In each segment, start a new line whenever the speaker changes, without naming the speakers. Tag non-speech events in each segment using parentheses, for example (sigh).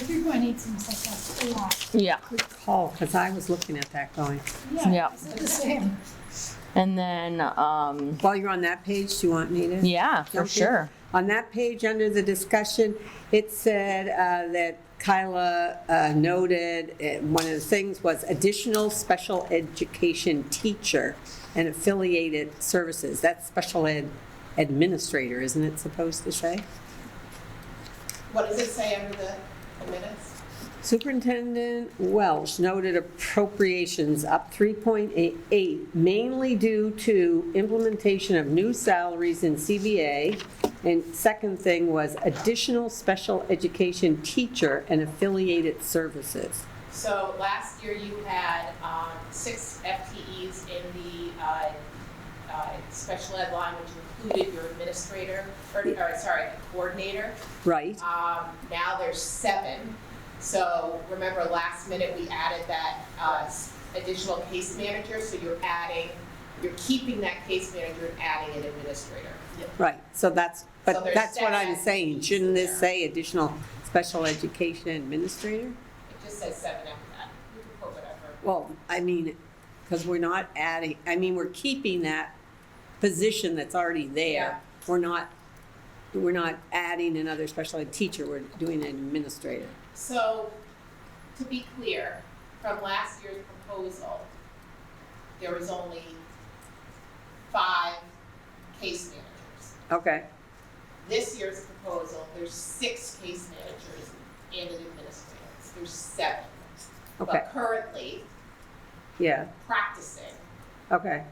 everyone eats them like that a lot.
Yeah.
Good call, because I was looking at that going,
Yeah.
It's the same.
And then, um,
while you're on that page, do you want me to?
yeah, for
jump in?
sure.
On that page, under the discussion, it said uh, that Kyla uh, noted, uh, one of the things was additional special education teacher and affiliated services. That's special ed administrator, isn't it supposed to say?
What does it say under the the minutes?
Superintendent Welsh noted appropriations up 3.88, mainly due to implementation of new salaries in CBA. And second thing was additional special education teacher and affiliated services.
So last year you had um, six FTEs in the uh, uh, special ed line, which included your administrator, or, or sorry, coordinator.
Right,
Um, now there's seven. So remember, last minute, we added that, uh, s- additional case manager, so you're adding, you're keeping that case manager and adding an administrator.
right, so that's,
So
but
there's
that's what I'm
seven
saying, shouldn't this
there.
say additional special education administrator?
It just says seven after that. You can put whatever.
Well, I mean, because we're not adding, I mean, we're keeping that position that's already
Yeah.
there. We're not, we're not adding another special ed teacher, we're doing an administrator.
So, to be clear, from last year's proposal, there was only five case managers.
Okay,
This year's proposal, there's six case managers and an administrator. There's seven.
okay,
But currently
yeah,
practicing,
okay,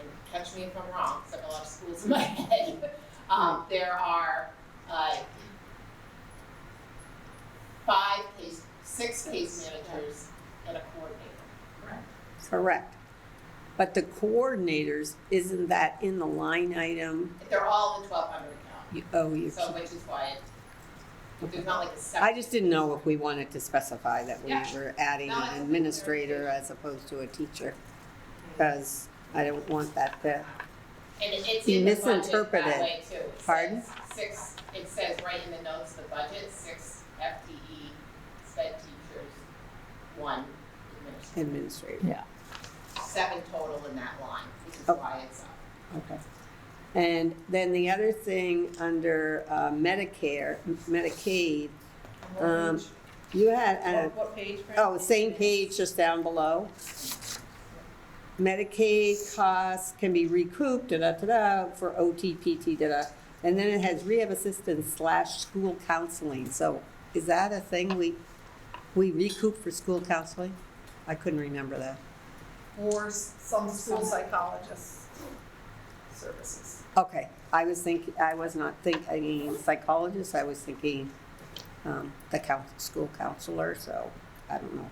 and catch me if I'm wrong, because I have a lot of schools in my (laughs) head, um, there are, uh, five case, six case managers and a coordinator.
correct. But the coordinators, isn't that in the line item?
They're all in the twelve hundred account,
You- Oh, you,
so which is why it, there's not like a separate.
I just didn't know if we wanted to specify that we
Yeah.
were adding
No, I
an
think
administrator as opposed to a teacher. Because I don't want that to
And it- it's
You
in the budget
misinterpreted.
that way too. It says
Pardon?
Six, it says right in the notes, of the budget, six FTE, sped teachers, one administrator,
administrator.
seven total in that line, which is
Oh.
why it's up.
Okay. And then the other thing under uh, Medicare, Medicaid, Um, you had, uh,
What page?
oh, same page just down below. Medicaid costs can be recouped, da-da-da-da, for OT, PT, da-da. And then it has rehab assistance slash school counseling. So is that a thing we, we recoup for school counseling? I couldn't remember that.
or s- some school psychologist services.
Okay, I was thinking, I was not thinking psychologist, I was thinking um, the counsel, school counselor, so I don't know.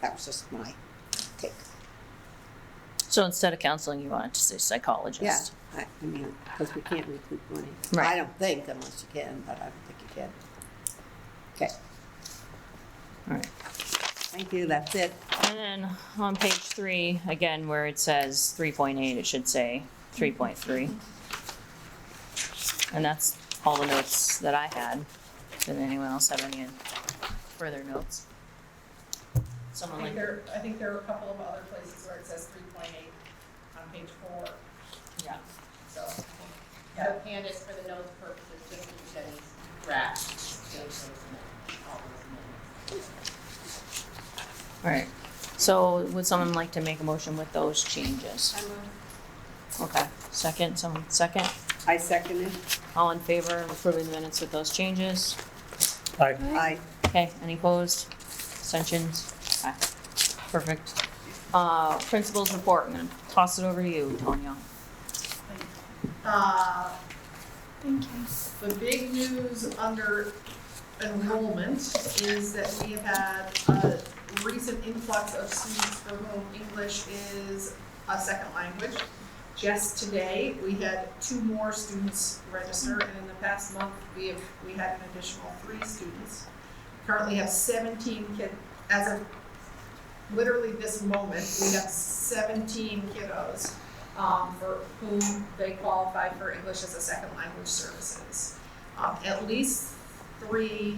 That was just my take.
So instead of counseling, you wanted to say
Yeah,
psychologist.
I, I mean, because we can't recoup money.
Right.
I don't think unless you can, but I don't think you can. Okay,
All right.
thank you, that's it.
And then on page three, again, where it says three point eight, it should say three point three. And that's all the notes that I had. Did anyone else have any further notes?
I
Someone
think
like,
there, I think there are a couple of other places where it says three point eight on page four,
yeah,
so.
So Candace, for the notes purposes, just to Jenny's draft, change those minutes, all those minutes.
all right. So would someone like to make a motion with those changes? Okay, second, someone, second?
I second it.
All in favor of approving the minutes with those changes?
Aye.
I,
Okay, any opposed? Abstentions? Okay, perfect. Uh, principals report, I'm gonna toss it over to you, Tanya.
Uh,
Thank you.
The big news under enrollment is that we have had a recent influx of students for whom English is a second language. Just today, we had two more students register, and in the past month, we have, we had an additional three students. Currently have seventeen kid, as of literally this moment, we have seventeen kiddos um, for whom they qualify for English as a second language services. Um, at least three